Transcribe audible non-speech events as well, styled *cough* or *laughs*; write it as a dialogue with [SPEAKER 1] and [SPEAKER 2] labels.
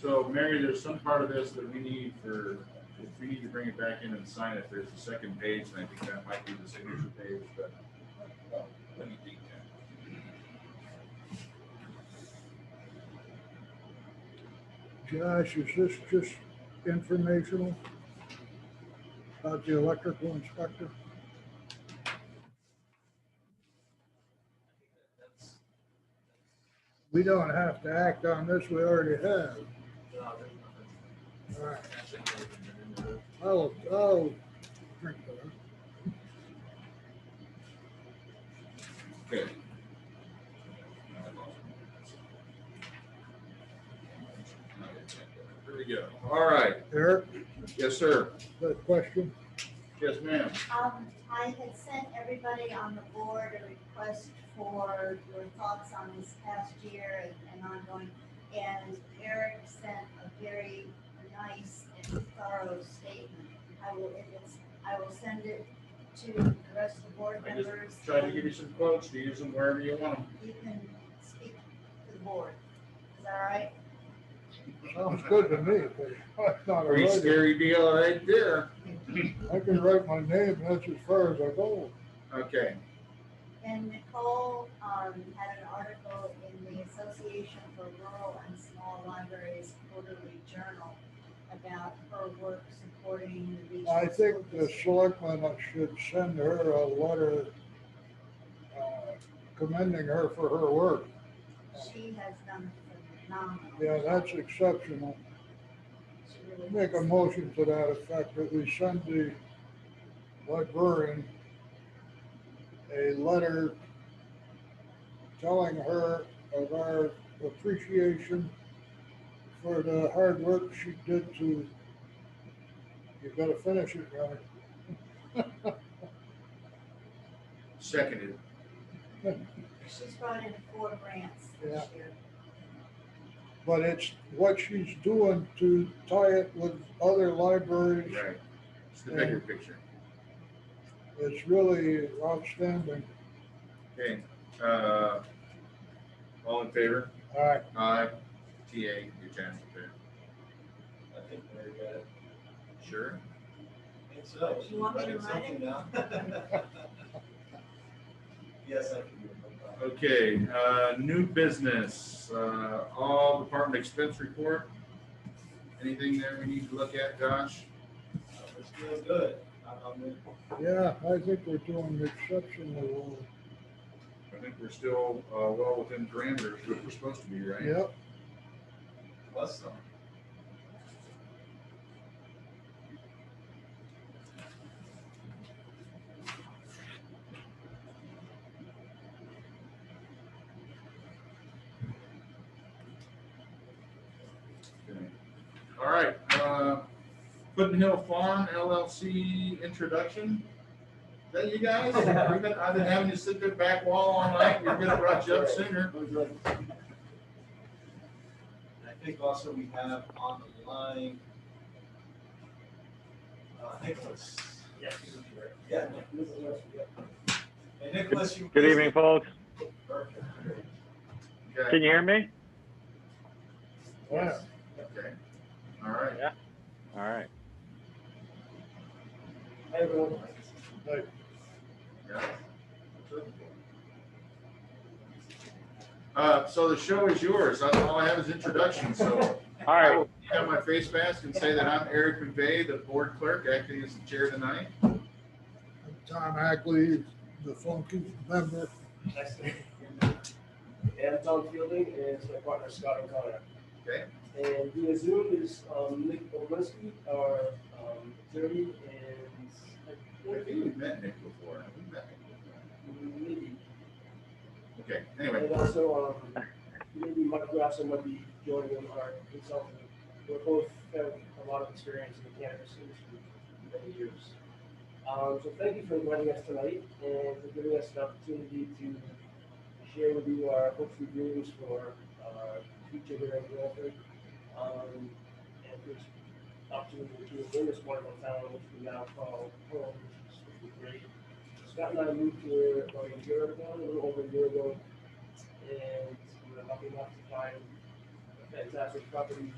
[SPEAKER 1] So Mary, there's some part of this that we need for, if we need to bring it back in and sign it, there's a second page, and I think that might be the signature page, but. oh, let me think
[SPEAKER 2] Josh, is this just informational about the electrical inspector?
[SPEAKER 3] That's,
[SPEAKER 2] We don't have to act on this, we already have.
[SPEAKER 3] no, there's nothing.
[SPEAKER 2] All right,
[SPEAKER 3] That's it, there's nothing to do.
[SPEAKER 2] I'll, I'll drink that.
[SPEAKER 1] that. Okay. Now I lost it. Here we go. All right.
[SPEAKER 2] Eric,
[SPEAKER 1] Yes, sir.
[SPEAKER 2] that question?
[SPEAKER 1] Yes, ma'am.
[SPEAKER 4] Um, I had sent everybody on the board a request for your thoughts on this past year and- and ongoing. And Eric sent a very nice and thorough statement. I will, if it's, I will send it to the rest of the board
[SPEAKER 1] I just
[SPEAKER 4] members.
[SPEAKER 1] tried to give you some quotes to use them wherever you want them.
[SPEAKER 4] and You can speak to the board. Is that all right?
[SPEAKER 2] Sounds good to me, but I'm not a
[SPEAKER 1] Pretty
[SPEAKER 2] writer.
[SPEAKER 1] scary deal right there.
[SPEAKER 2] I can write my name, and that's as far as I go.
[SPEAKER 1] Okay,
[SPEAKER 4] And Nicole, um, had an article in the Association for Rural and Small Libraries Quarterly Journal about her work supporting the regional.
[SPEAKER 2] I
[SPEAKER 4] school
[SPEAKER 2] think the
[SPEAKER 4] district.
[SPEAKER 2] selectmen should send her a letter uh, commending her for her work.
[SPEAKER 4] She has done phenomenal.
[SPEAKER 2] Yeah, that's exceptional.
[SPEAKER 4] She really
[SPEAKER 2] Make a
[SPEAKER 4] has.
[SPEAKER 2] motion to that effect, that we send the librarian a letter telling her of our appreciation for the hard work she did to, you gotta finish it, Ronnie.
[SPEAKER 1] seconded.
[SPEAKER 4] She's brought in four grants this year.
[SPEAKER 2] But it's what she's doing to tie it with other libraries
[SPEAKER 1] Right. It's the bigger picture.
[SPEAKER 2] is really outstanding.
[SPEAKER 1] Okay, uh, all in favor?
[SPEAKER 2] All right,
[SPEAKER 1] Aye. TA, your chance to pay.
[SPEAKER 3] I think Mary got it.
[SPEAKER 1] Sure.
[SPEAKER 3] I think so.
[SPEAKER 4] You want me to write it?
[SPEAKER 3] Writing something down. *laughs* Yes, I can do it. no problem.
[SPEAKER 1] Okay, uh, new business, uh, all department expense report. Anything there we need to look at, Josh?
[SPEAKER 3] Uh, We're still good. I- I'm in-
[SPEAKER 2] yeah, I think we're doing exceptionally well.
[SPEAKER 1] I think we're still, uh, well within parameters that we're supposed to be, right?
[SPEAKER 2] Yep,
[SPEAKER 3] Plus some.
[SPEAKER 1] Okay. All right, uh, Puddin Hill Farm LLC introduction. Is that you guys? We've been, I've been having you sit there back wall all night. We're gonna brought you up sooner.
[SPEAKER 3] And I think also we have on the line. uh, Nicholas. Yes. Yeah. Nicholas, yeah. Hey, Nicholas, you.
[SPEAKER 5] Good evening, folks.
[SPEAKER 3] Perfect.
[SPEAKER 1] Okay.
[SPEAKER 5] Can you hear me?
[SPEAKER 2] yeah.
[SPEAKER 1] Okay, all right.
[SPEAKER 5] All right.
[SPEAKER 3] Hey, everyone.
[SPEAKER 1] yeah. Uh, so the show is yours. That's All I have is introduction, so.
[SPEAKER 5] All
[SPEAKER 1] I
[SPEAKER 5] right.
[SPEAKER 1] will take out my face mask and say that I'm Eric McVay, the board clerk, acting as the chair tonight.
[SPEAKER 2] Tom Ackley, the funky member.
[SPEAKER 6] And I'm Tom Fielding, and it's my partner Scott O'Connor.
[SPEAKER 1] Okay.
[SPEAKER 6] And via Zoom is um, Nick Olinsky, our um, attorney,
[SPEAKER 1] I
[SPEAKER 6] and
[SPEAKER 1] think we've met Nick before. Have we met Nick
[SPEAKER 6] maybe,
[SPEAKER 1] before? Okay, anyway,
[SPEAKER 6] and also um, maybe Mike Grasson might be joining him, our consultant. We're both have a lot of experience in the cannabis industry for many years. Um, so thank you for inviting us tonight and for giving us an opportunity to share with you our hopes and dreams for our future here in Guilford. Um, and this opportunity to win this wonderful town, which we now call home, which is great. Scott and I moved here about a year ago, a little over a year ago, and we were lucky enough to find a fantastic property